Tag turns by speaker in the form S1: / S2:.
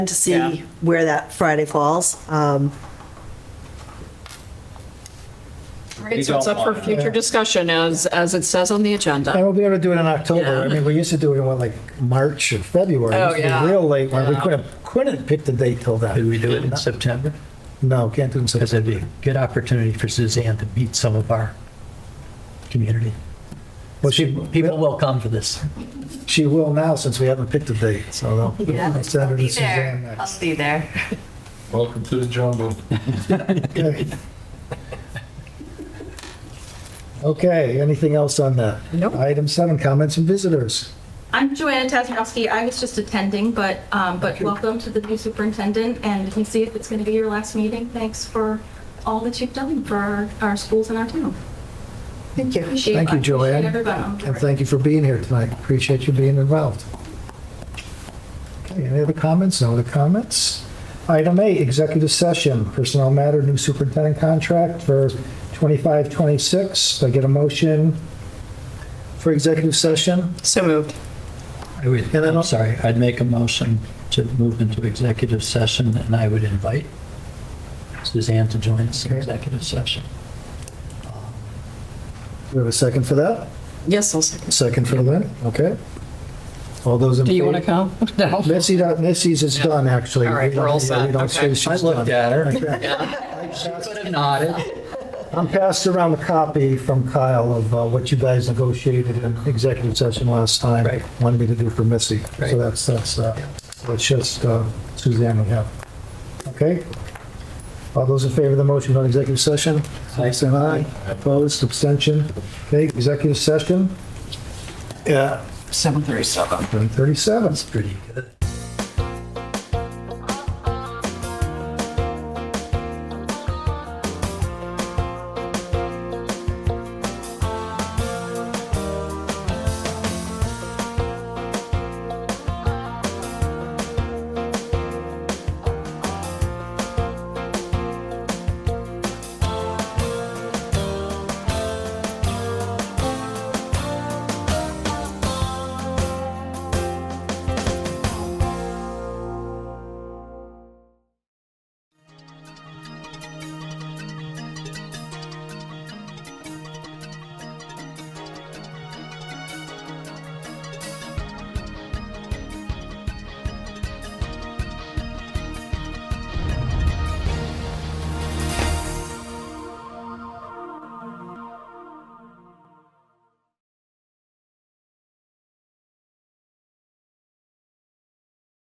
S1: to see
S2: Yeah.
S1: where that Friday falls. Um,
S2: Right, so it's up for future discussion as, as it says on the
S3: And
S2: agenda.
S3: we'll be able to do it in October. I
S2: Yeah.
S3: mean, we used to do it in what, like March or February. It
S2: Oh,
S3: used to be
S2: yeah.
S3: Real late, when we
S2: Yeah.
S3: couldn't, couldn't pick the date till
S4: Could
S3: then.
S4: we do it in September?
S3: No, can't do it in
S4: Because it'd be
S3: September.
S4: a good opportunity for Suzanne to meet some of our community.
S3: Well, she,
S4: People will come for this.
S3: she will now since we haven't picked a date, so they'll- they'll send her
S5: I'll
S3: to
S5: be there.
S3: Suzanne
S5: I'll
S3: next.
S5: be there.
S6: Welcome to the jungle.
S3: Okay. Okay, anything else on that?
S2: Nope.
S3: Item seven, comments from visitors.
S7: I'm Joanna Tasmanowski. I was just attending, but, um, but welcome to the new superintendent, and you can see if it's going to be your last meeting. Thanks for all that you've done for our, our schools and our town.
S1: Thank you.
S7: Appreciate-
S3: Thank you, Joanne.
S7: Appreciate everyone on
S3: And
S7: board.
S3: thank you for being here tonight. Appreciate you being involved. Okay, any other comments? No other comments? Item eight, executive session, personnel matter, new superintendent contract for 25, 26. Do I get a motion for executive session?
S2: So moved.
S4: I would,
S3: And then I'll-
S4: I'm sorry, I'd make a motion to move into executive session and I would invite Suzanne to join us in
S3: Okay.
S4: executive session.
S3: Do we have a second for that?
S2: Yes, I'll second.
S3: Second for Lynn? Okay. All those in favor?
S2: Do you want to come? No.
S3: Missy, don't- Missy's is done, actually.
S2: All right, we're all
S3: We don't- we don't
S2: set. Okay.
S3: say
S4: I
S3: she's
S4: looked
S3: done.
S4: at her.
S3: I'm passed around the copy from Kyle of uh, what you guys negotiated in executive session last time.
S4: Right.
S3: Wanted me to do for Missy.
S4: Right.
S3: So that's, that's, uh, that's just uh, Suzanne we have. Okay? All those in favor of the motion on executive session?
S4: Aye.
S3: Say aye. Opposed, abstention? Okay, executive session? Yeah.
S2: 7:37.
S3: 37.
S4: That's pretty good.